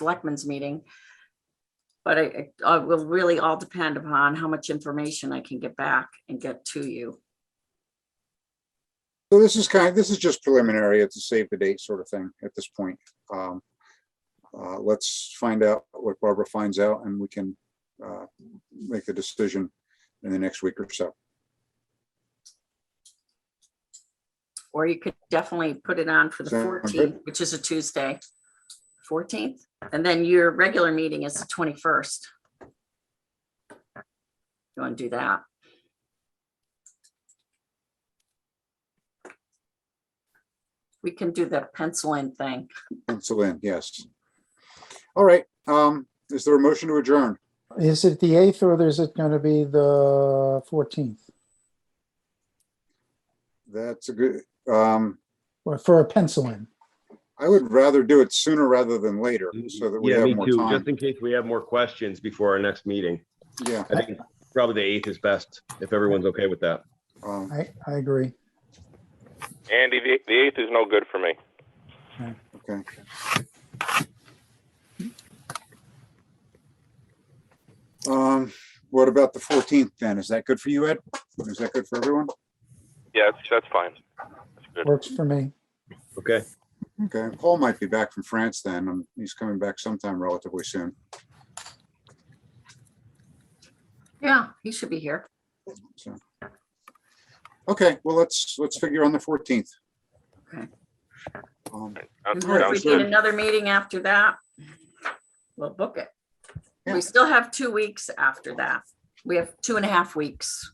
selectmen's meeting. But it, it will really all depend upon how much information I can get back and get to you. So this is kind, this is just preliminary. It's a save the date sort of thing at this point. Um, uh, let's find out what Barbara finds out and we can, uh, make the decision in the next week or so. Or you could definitely put it on for the Sound good? fourteenth, which is a Tuesday. Fourteenth, and then your regular meeting is the twenty-first. You want to do that? We can do the penciling thing. Pencil in, yes. All right, um, is there a motion to adjourn? Is it the eighth or is it going to be the fourteenth? That's a good, um, Or for a pencil in? I would rather do it sooner rather than later so that we Yeah, have me more too, just time. in case we have more questions before our next meeting. Yeah, I think probably the eighth is best, if everyone's okay with that. um, I, I agree. Andy, the, the eighth is no good for me. okay. Um, what about the fourteenth then? Is that good for you, Ed? Is that good for everyone? Yeah, that's, that's fine. Works for me. Okay, Okay, Paul might be back from France then. Um, He's coming back sometime relatively soon. Yeah, he should be here. So. Okay, well, let's, let's figure on the fourteenth. Okay. Um, Sounds- And If sounds we good. need another meeting after that, we'll book it. Yeah. We still have two weeks after that. We have two and a half weeks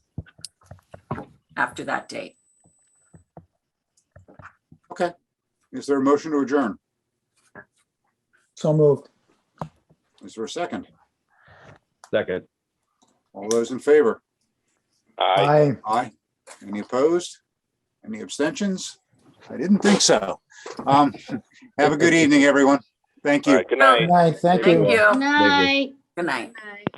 after that date. okay. Is there a motion to adjourn? So moved. Is there a second? second. All those in favor? Aye. Aye. Aye. Any opposed? Any abstentions? I didn't think so. Um, have a good evening, everyone. Thank All you. right, good night. Good night. Thank you. Thank you. Night. Good night. Night.